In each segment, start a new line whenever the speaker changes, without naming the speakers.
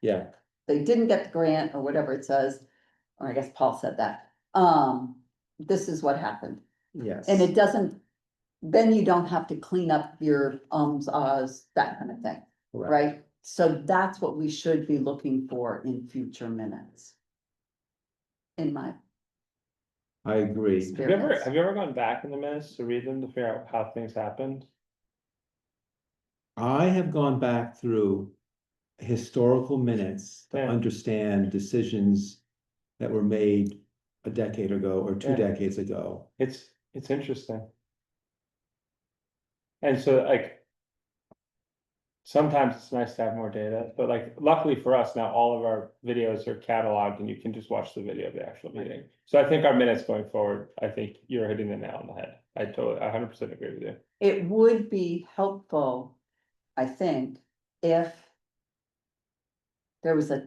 yeah,
they didn't get the grant or whatever it says, or I guess Paul said that, um, this is what happened.
yes.
And it doesn't, then you don't have to clean up your ums, ahs, that kind of thing,
correct.
right? So that's what we should be looking for in future minutes. In my
I agree.
Have you ever,
experience.
have you ever gone back in the minutes to read them to figure out how things happened?
I have gone back through historical minutes to
Yeah.
understand decisions that were made a decade ago or two
Yeah.
decades ago.
It's, it's interesting. And so like. Sometimes it's nice to have more data, but like luckily for us, now all of our videos are cataloged and you can just watch the video of the actual meeting. So I think our minutes going forward, I think you're hitting the nail on the head. I totally, I hundred percent agree with you.
It would be helpful, I think, if there was a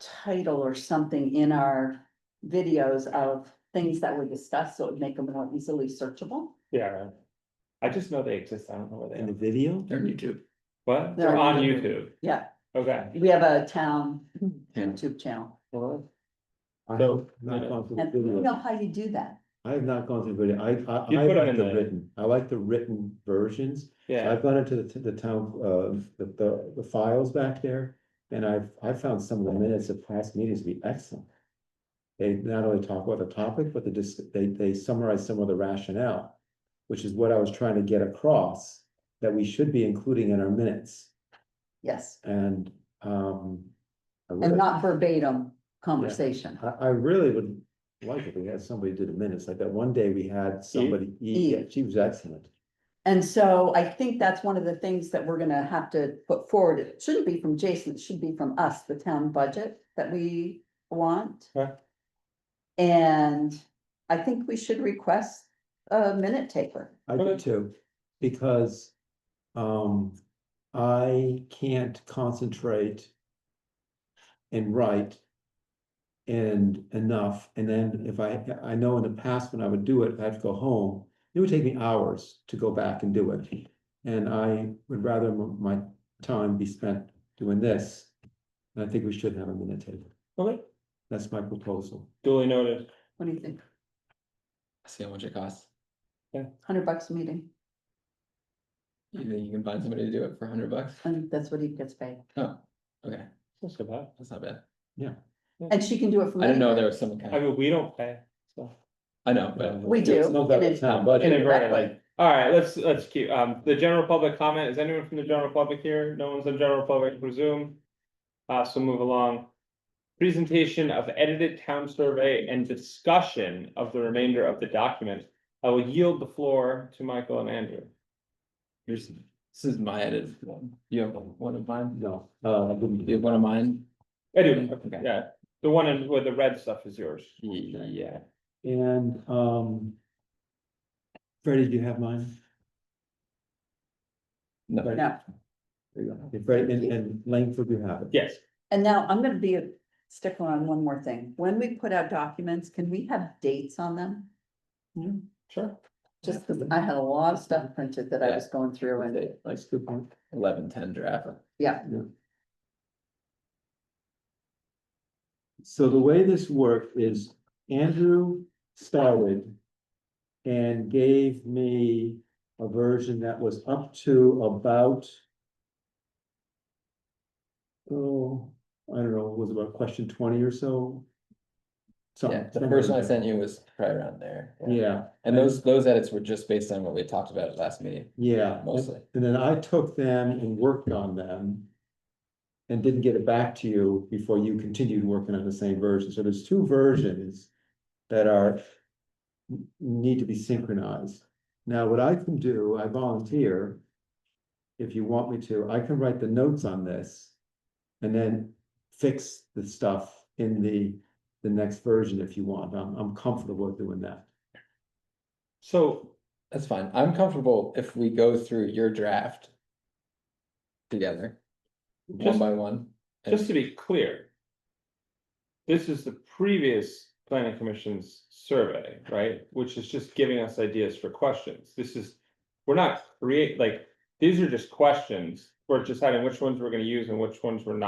title or something in our videos of things that were discussed, so it would make them more easily searchable.
Yeah. I just know they exist. I don't know where
In
they
the
are.
video,
They're on YouTube.
What?
They're
They're on
on
YouTube.
Yeah,
Okay.
we have a town
Yeah.
YouTube channel.
I
So-
have not gone through
And you
video.
know how you do that?
I have not gone through video. I,
You
I, I
put 'em
like
in
the
the-
written, I like the written versions.
Yeah.
I've gone into the, the town, uh, the, the, the files back there, and I've, I found some of the minutes of past meetings to be excellent. They not only talk about the topic, but they just, they, they summarize some of the rationale, which is what I was trying to get across, that we should be including in our minutes,
Yes,
and, um. I
and
really-
not verbatim conversation.
I, I really would like if we had somebody do the minutes, like that one day we had somebody,
Eve.
yeah, she was excellent.
And so I think that's one of the things that we're gonna have to put forward. It shouldn't be from Jason, it should be from us, the town budget that we want.
Okay.
And I think we should request a minute taker.
I do
Okay.
too, because, um, I can't concentrate and write and enough, and then if I, I know in the past when I would do it, I'd go home, it would take me hours to go back and do it. And I would rather m- my time be spent doing this, and I think we should have a minute table,
Okay.
that's my proposal.
Duly noted.
What do you think?
See how much it costs.
Hundred bucks a meeting,
You think you can find somebody to do it for hundred bucks?
and that's what he gets paid.
Oh, okay,
That's about.
that's not bad.
And she can do it from.
I didn't know
anywhere.
there was some kind
I
of,
mean, we don't pay, so.
I know, but.
We do.
It's not that
It is-
town budget.
Inadvertently. All right, let's, let's keep, um, the general public comment, is anyone from the general public here? No one's in general public, I presume. Uh, so move along. Presentation of edited town survey and discussion of the remainder of the document. I will yield the floor to Michael and Andrew.
Here's, this is my edit. one. You have one of mine?
No, uh, I wouldn't.
You have one of mine?
I do,
Mm-hmm. Okay.
yeah, the one in- where the red stuff is yours.
Yeah.
And, um. Freddie, do you have mine?
No,
No.
There you go. Okay, Freddie, and, and Langford, you have it.
Yes,
And now I'm gonna be a stickler on one more thing. When we put out documents, can we have dates on them?
sure.
Just because I had a lot of stuff printed that I was going through and
like scoop one, eleven, ten draft.
So the way this worked is Andrew started. And gave me a version that was up to about. Oh, I don't know, was about question twenty or so. Something-
Yeah, the first one I
something
sent you was probably around there.
like that. Yeah.
And those, those edits were just based on what we talked about at last meeting.
Yeah, and-
Mostly.
and then I took them and worked on them. And didn't get it back to you before you continued working on the same version, so there's two versions that are. n- Need to be synchronized. Now, what I can do, I volunteer. If you want me to, I can write the notes on this. And then fix the stuff in the, the next version if you want, I'm, I'm comfortable doing that.
So
That's fine. I'm comfortable if we go through your draft together, one
Just-
by one. and-
Just to be clear. This is the previous planning commission's survey, right? Which is just giving us ideas for questions. This is, we're not create, like, these are just questions. We're deciding which ones we're gonna use and which ones we're not.